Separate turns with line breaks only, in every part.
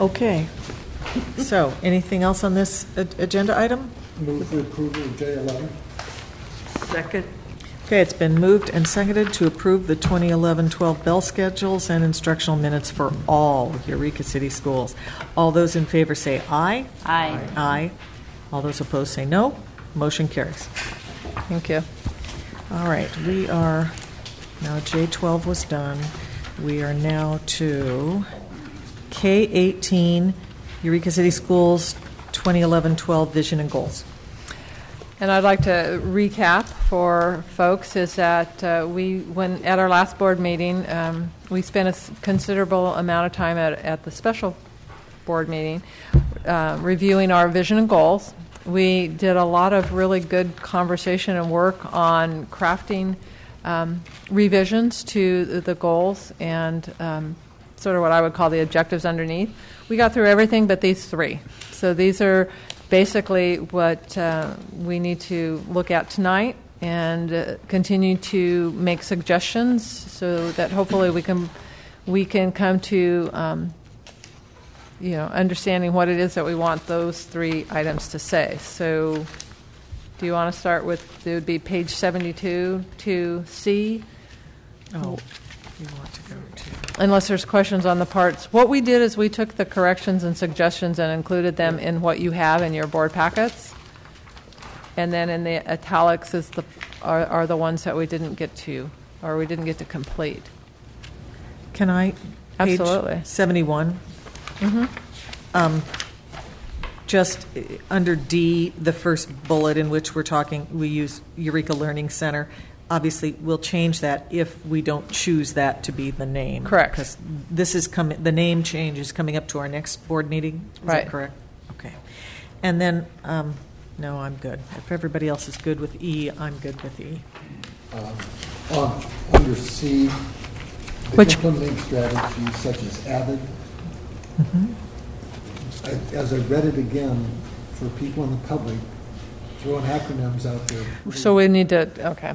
Okay. So, anything else on this a- agenda item?
Move for approval of J eleven.
Second,
Okay, it's been moved and seconded to approve the 2011-12 bell schedules and instructional minutes for all Eureka City schools. All those in favor say aye.
Aye.
Aye. All those opposed say no. Motion carries.
Thank you.
All right, we are, now J-12 was done. We are now to K-18, Eureka City Schools 2011-12 Vision and Goals.
And I'd like to recap for folks is that uh, we, when, at our last board meeting, um, we spent a s- considerable amount of time at, at the special board meeting uh, reviewing our vision and goals. We did a lot of really good conversation and work on crafting um, revisions to the- the goals and um, sort of what I would call the objectives underneath. We got through everything but these three. So these are basically what uh, we need to look at tonight and uh, continue to make suggestions so that hopefully we can we can come to um, you know understanding what it is that we want those three items to say. So do you want to start with it would be page 72 to C
Oh, you want to go to,
unless there's questions on the parts. What we did is we took the corrections and suggestions and included them in what you have in your board packets. And then in the italics is the, are, are the ones that we didn't get to, or we didn't get to complete.
can I? page
Absolutely. Mm-hmm.
71. Um, Just eh, under D, the first bullet in which we're talking, we use Eureka Learning Center. Obviously, we'll change that if we don't choose that to be the name.
Correct.
Because this is coming, the name change is coming up to our next board meeting. Is that
Right.
correct? Okay. And then, um, no, I'm good. If everybody else is good with E, I'm good with E.
uh, On, under C, the
Which-
implementing strategies such as AVID.
Mm-hmm.
I- As I read it again, for people in the public, throwing acronyms out there.
Mm-hmm.
So we need to, okay.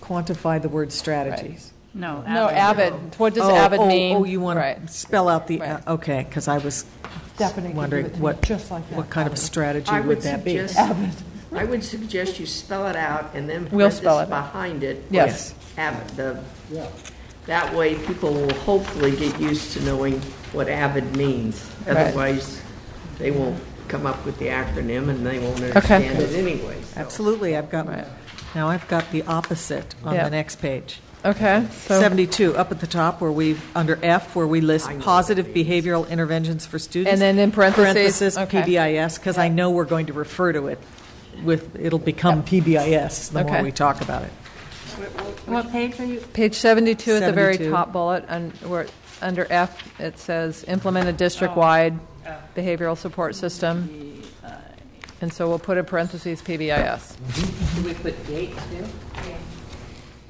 Quantify the word strategies.
No.
No,
Abbott.
avid, what does
Oh,
avid
oh,
mean?
Oh, you want
Right.
to spell out the, uh,
Right.
okay, because I was
Stephanie can
wondering
give it to me
what,
just like that,
what kind of
probably.
strategy
I
would
would
that be?
suggest, I would suggest you spell it out and then
We'll spell
parentheses
it out.
behind it.
Yes.
Have the,
Yeah,
that way people will hopefully get used to knowing what avid means.
Right.
Otherwise, they won't come up with the acronym and they won't
Okay.
understand it anyway. so.
Absolutely, I've got,
Right.
now I've got the opposite on
Yeah.
the next page.
Okay, so,
72, up at the top where we, under F, where we list positive behavioral interventions for students.
And then in parentheses, okay.
PBIS, because I know we're going to refer to it with, it'll become PBIS the more
Okay.
we talk about it.
What page are you?
page 72 at the very
72.
top bullet, un- where, under F, it says, implement a district-wide behavioral support system. And so we'll put in parentheses PBIS.
Do we put date too?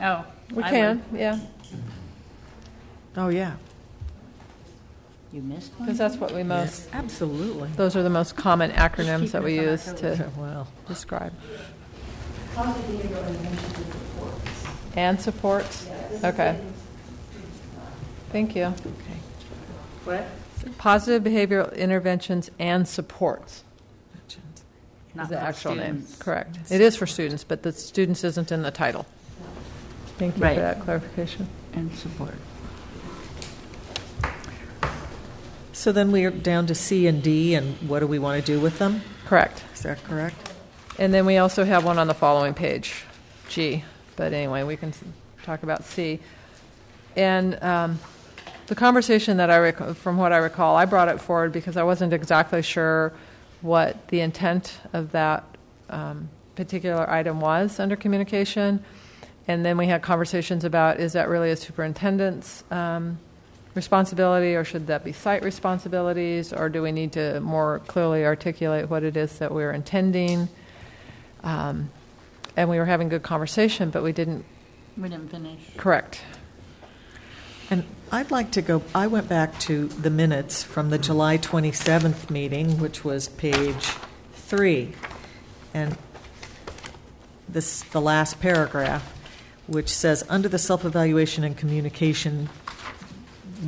Oh.
We
I
can,
would-
yeah,
Oh, yeah.
You missed one?
because that's what we most,
Absolutely.
those are the most common acronyms that we use to
Well,
describe. And supports? Okay. Thank you.
okay.
What?
Positive behavioral interventions and supports
Not
is the
for
actual name.
students.
Correct. It is for students, but the students isn't in the title. Thank you for
Right.
that clarification.
And support.
So then we are down to C and D, and what do we want to do with them?
Correct.
Is that correct?
And then we also have one on the following page, G. But anyway, we can s- talk about C. And um, the conversation that I, rec- from what I recall, I brought it forward because I wasn't exactly sure what the intent of that um, particular item was under communication. And then we had conversations about, is that really a superintendent's um, responsibility, or should that be site responsibilities? Or do we need to more clearly articulate what it is that we're intending? Um, and we were having good conversation, but we didn't
We didn't finish.
correct.
And I'd like to go, I went back to the minutes from the July 27th meeting, which was page three. And this, the last paragraph, which says, "Under the self-evaluation and communication